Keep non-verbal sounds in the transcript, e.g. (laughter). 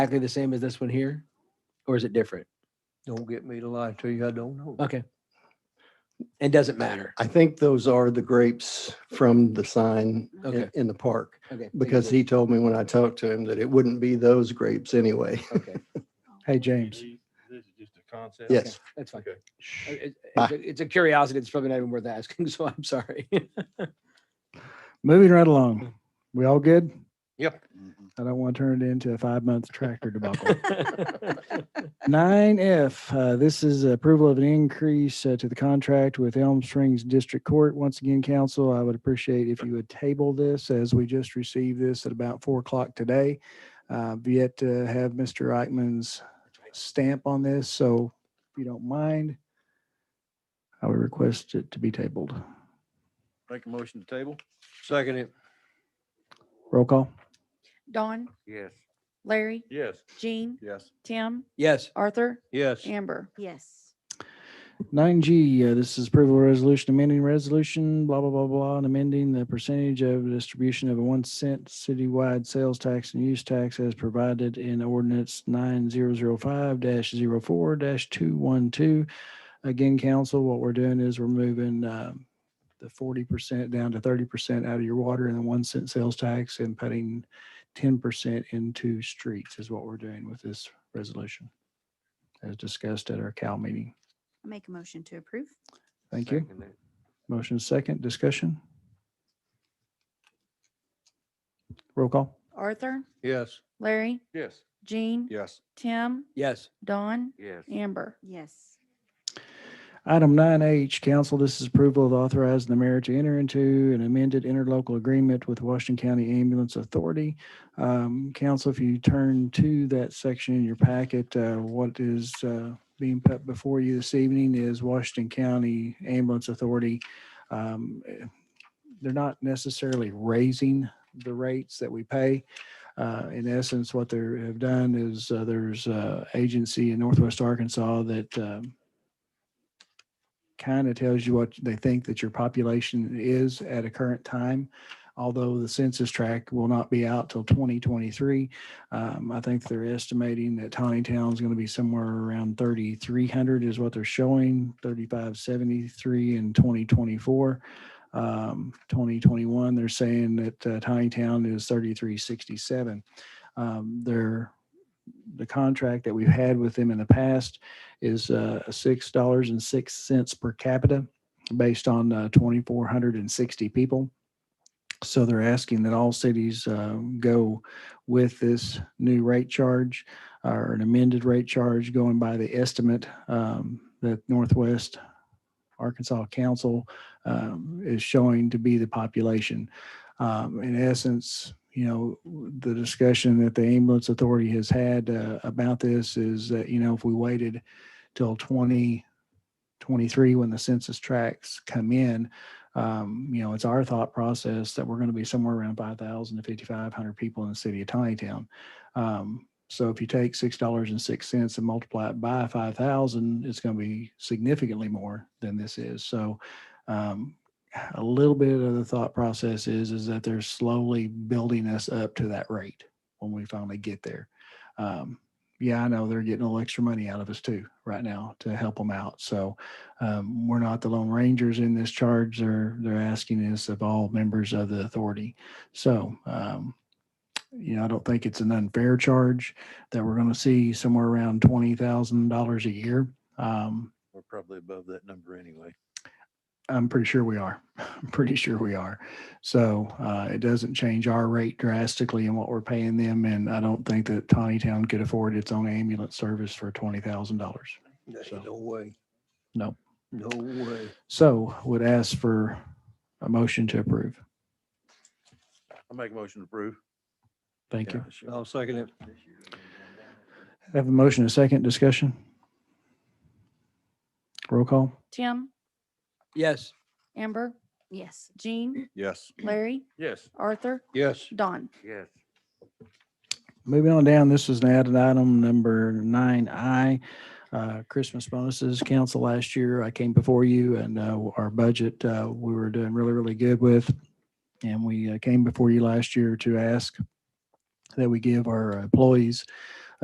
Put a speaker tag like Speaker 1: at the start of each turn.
Speaker 1: exactly the same as this one here? Or is it different?
Speaker 2: Don't get me to lie to you, I don't know.
Speaker 1: Okay. It doesn't matter.
Speaker 2: I think those are the grapes from the sign i-
Speaker 1: Okay.
Speaker 2: in the park,
Speaker 1: Okay. thank
Speaker 2: because
Speaker 1: you.
Speaker 2: he told me when I talked to him that it wouldn't be those grapes anyway.
Speaker 1: Okay,
Speaker 3: Hey, James,
Speaker 4: This is just a concept.
Speaker 2: Yes.
Speaker 1: that's
Speaker 2: (laughs)
Speaker 1: fine.
Speaker 4: Okay.
Speaker 1: I- it-
Speaker 2: Bye.
Speaker 1: It's a- it's a curiosity. It's probably not even worth asking, (laughs) so I'm sorry.
Speaker 3: moving right along. We all good?
Speaker 4: Yep.
Speaker 3: I don't want to turn it into a five-month tractor debacle. Nine F, uh, this is approval of an increase uh, to the contract with Elm Springs District Court. Once again, council, I would appreciate if you would table this as we just received this at about four o'clock today. Uh, I've yet to have Mr. Eichmann's stamp on this, so if you don't mind, I would request it to be tabled.
Speaker 4: Make a motion to table?
Speaker 2: Second it.
Speaker 3: Roll call.
Speaker 5: Don,
Speaker 4: Yes.
Speaker 5: Larry,
Speaker 4: Yes.
Speaker 5: Jean,
Speaker 4: Yes.
Speaker 5: Tim,
Speaker 1: (laughs) Yes,
Speaker 5: Arthur,
Speaker 2: Yes.
Speaker 5: Amber.
Speaker 6: Yes.
Speaker 3: Nine G, uh, this is approval of resolution, amending resolution, blah, blah, blah, blah, and amending the percentage of distribution of a one cent citywide sales tax and use tax as provided in ordinance nine zero zero five 4 two one two. Again, council, what we're doing is we're moving um, the forty percent down to thirty percent out of your water and the one cent sales tax and putting ten percent into streets is what we're doing with this resolution as discussed at our Cal meeting.
Speaker 6: I Make a motion to approve.
Speaker 3: Thank you. Motion is second, discussion? Roll call?
Speaker 5: Arthur,
Speaker 2: Yes.
Speaker 5: Larry,
Speaker 4: Yes.
Speaker 5: Jean,
Speaker 4: Yes.
Speaker 5: Tim,
Speaker 1: yes.
Speaker 5: Don,
Speaker 4: Yes.
Speaker 5: Amber.
Speaker 6: Yes.
Speaker 3: Item nine H, council, this is approval of authorizing the mayor to enter into an amended interlocal agreement with Washington County Ambulance Authority. Um, council, if you turn to that section in your packet, uh, what is, uh, being put before you this evening is Washington County Ambulance Authority. Um, eh, They're not necessarily raising the rates that we pay. Uh, in essence, what they have done is, uh, there's, uh, agency in Northwest Arkansas that, um, kind of tells you what they think that your population is at a current time. Although the census tract will not be out till 2023, um, I think they're estimating that Tawny Town is going to be somewhere around 3,300 is what they're showing, 3,573 in 2024. Um, 2021, they're saying that uh, Tawny Town is 3,367. Um, they're the contract that we've had with them in the past is uh, six dollars and six cents per capita, based on uh, twenty-four hundred and sixty people. So they're asking that all cities uh, go with this new rate charge or an amended rate charge, going by the estimate um, that Northwest Arkansas Council um, is showing to be the population. Um, in essence, you know, the discussion that the ambulance authority has had uh, about this is that you know if we waited till 2023 when the census tracts come in. Um, you know, it's our thought process that we're going to be somewhere around 5,000 to 5,500 people in the city of Tiny Town. Um, so if you take $6.06 and multiply it by 5,000, it's going to be significantly more than this is. So, um, a little bit of the thought process is, is that they're slowly building us up to that rate when we finally get there. Um, yeah, I know they're getting a little extra money out of us too right now to help them out. So um, we're not the Lone Rangers in this charge. They're they're asking us of all members of the authority. So um, you know, I don't think it's an unfair charge that we're going to see somewhere around twenty thousand dollars a year. Um,
Speaker 4: We're probably above that number anyway.
Speaker 3: I'm pretty sure we are. (laughs) I'm pretty sure we are. So uh, it doesn't change our rate drastically in what we're paying them. And I don't think that Tawny Town could afford its own ambulance service for $20,000. So-
Speaker 2: No way.
Speaker 3: No.
Speaker 2: No way.
Speaker 3: So would ask for a motion to approve.
Speaker 4: I make a motion to approve.
Speaker 3: Thank you.
Speaker 2: I'll second it.
Speaker 3: Have a motion, a second discussion? Roll call?
Speaker 5: Tim,
Speaker 1: Yes,
Speaker 5: Amber,
Speaker 6: Yes.
Speaker 5: Jean,
Speaker 4: Yes.
Speaker 5: Larry,
Speaker 4: Yes.
Speaker 5: Arthur,
Speaker 2: Yes.
Speaker 5: Don.
Speaker 4: Yes.
Speaker 3: Moving on down, this is an added item number nine I. uh, Christmas bonuses, council last year, I came before you and uh, our budget, uh, we were doing really, really good with. And we uh, came before you last year to ask that we give our employees